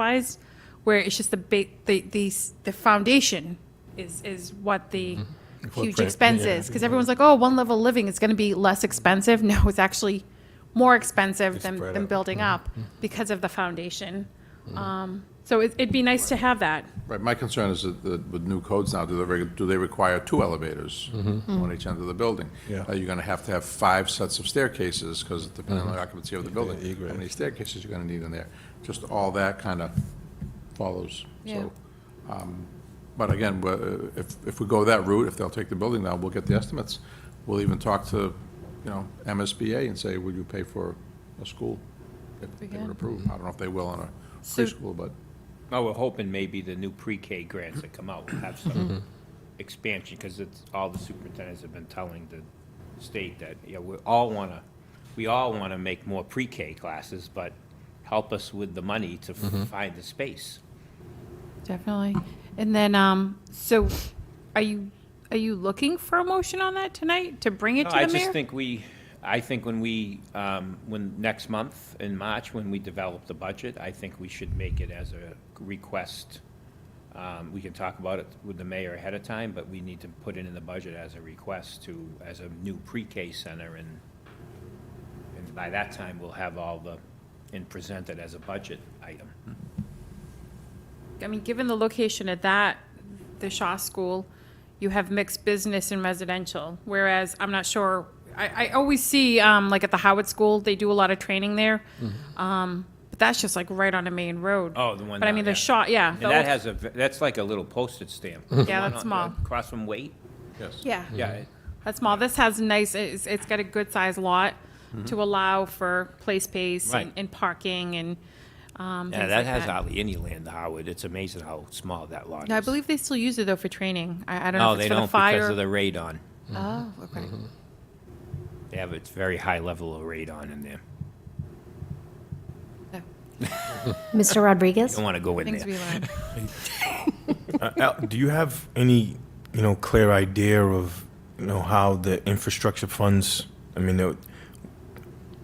buys, where it's just the ba, the, the, s- the foundation is, is what the huge Footprint, expense yeah. is. Because everyone's like, oh, one level living is gonna be less expensive. No, it's actually more expensive It's than, spread than out. Mm-hmm. building up because of the foundation. Um, so it, it'd be nice to have that. Right, my concern is that, that with new codes now, do they, reg- do they require two elevators? Mm-hmm. On each end of the building? Yeah. Are you gonna have to have five sets of staircases, because depending Mm-hmm. on the occupancy of the building, how egress. many staircases you're gonna need in there? Just all that kinda follows, so. Yeah. um, But again, we're- if, if we go that route, if they'll take the building now, we'll get the estimates. We'll even talk to, you know, MSBA and say, would you pay for a school? If they would can. approve, I don't know if they will on a So- preschool, but. Now, we're hoping maybe the new pre-K grants that come out will have some expansion, because it's, all the superintendents have been telling the state that, you know, we all want to, we all want to make more pre-K classes, but help us with the money to f- find the space. Definitely. And then, um, so are you, are you looking for a motion on that tonight to bring it No, to the mayor? I just think we, I think when we, um, when, next month, in March, when we develop the budget, I think we should make it as a request. Um, We can talk about it with the mayor ahead of time, but we need to put it in the budget as a request to, as a new pre-K center, and, and by that time, we'll have all the, and present it as a budget item. I mean, given the location at that, the Shaw School, you have mixed business and residential, whereas I'm not sure, I, I always see, um, like at the Howard School, they do a lot of training there. Um, but that's just like right on a main road. Mm-hmm. Oh, the one But I down mean, the there. Shaw, yeah. the And that old- has a, v- that's like a little postage stamp. uh, Yeah, that's small. Across from Wait, Yes. Yeah. yeah, it- That's small. This has nice, it's, it's got a good sized lot to allow for play space and, Mm-hmm. Right. and parking and, um, Yeah, things like that has hardly any land, Howard. It's amazing how small that lot is. No, I believe they still use it though for training. I, I don't know No, if it's they for the don't fire. because of Mm-hmm. the radon. Oh, okay. They have a very high level of radon in there. Mr. Rodriguez? Don't want to go in Things we there. learn. Al, do you have any, you know, clear idea of, you know, how the infrastructure funds? I mean, the-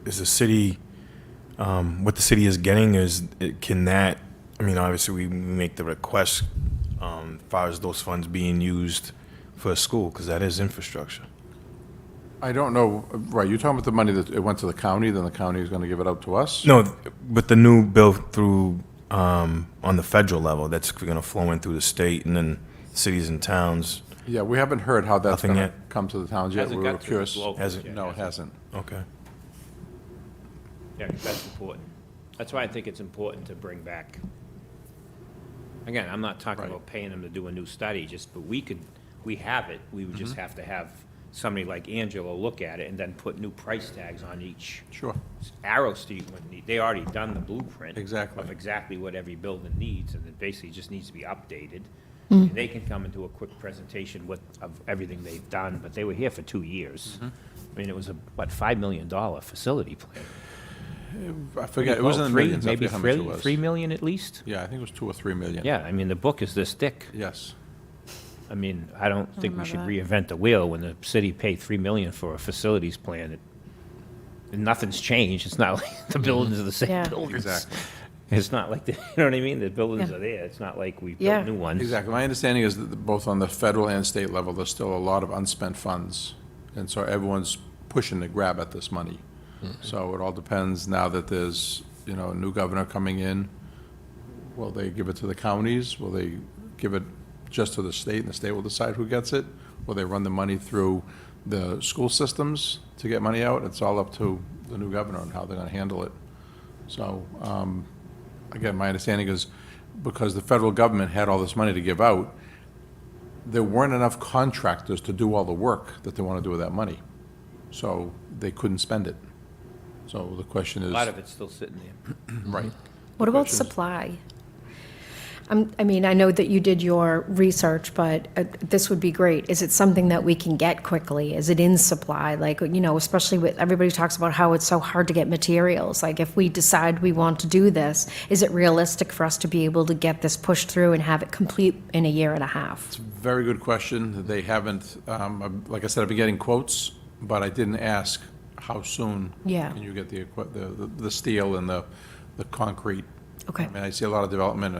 is the city, um, what the city is getting is, it- can that? I mean, obviously, we make the request um, as far as those funds being used for a school because that is infrastructure. I don't know, right, you're talking about the money that it went to the county, then the county is gonna give it up to us? No, but the new bill through um, on the federal level that's going to flow in through the state and then cities and towns. Yeah, we haven't heard how that's Nothing gonna yet. come to the towns yet. We Hasn't were got to curious. the locals Hasn't- yet, No, it has hasn't. Okay. Yeah, 'cause that's important. That's why I think it's important to bring back. Again, I'm not talking Right. about paying them to do a new study, just, but we could, we have it. We would just have to have somebody like Angelo look at it and then put new price tags on each. Sure. Arrow Street wouldn't need, they already done the blueprint. Exactly. Of exactly what every building needs, and it basically just needs to be updated. And They can come and do a quick presentation what, of everything they've done, but they were here for two years. Mm-hmm. I mean, it was a, what, five million dollar facility plan? I forget, it was in the Three, millions, I Maybe forget how much three, it was. three million at least? Yeah, I think it was two or three million. Yeah, I mean, the book is this thick. Yes. I mean, I don't think remember we should that. reinvent the wheel when the city paid three million for a facilities plan. It- And nothing's changed. It's not like the buildings are the same Yeah. buildings. Exactly. It's not like, the- you know what I mean? The buildings Yeah. are there. It's not like we Yeah. built new ones. Exactly. My understanding is that the- both on the federal and state level, there's still a lot of unspent funds. And so everyone's pushing to grab at this money. So it all depends now that there's, you know, a new governor coming in. Will they give it to the counties? Will they give it just to the state and the state will decide who gets it? Will they run the money through the school systems to get money out? It's all up to the new governor and how they're gonna handle it. So, um, again, my understanding is because the federal government had all this money to give out, there weren't enough contractors to do all the work that they want to do with that money. So they couldn't spend it. So the question A is, lot of it's still sitting there. right, What about Questions? supply? Um, I mean, I know that you did your research, but uh, this would be great. Is it something that we can get quickly? Is it in supply? Like, you know, especially with, everybody talks about how it's so hard to get materials. Like, if we decide we want to do this, is it realistic for us to be able to get this pushed through and have it complete in a year and a half? very good question. They haven't, um, like I said, I've been getting quotes, but I didn't ask how soon Yeah. can you get the, equi- the, the- the steel and the, the concrete Okay. I mean, I see a lot of development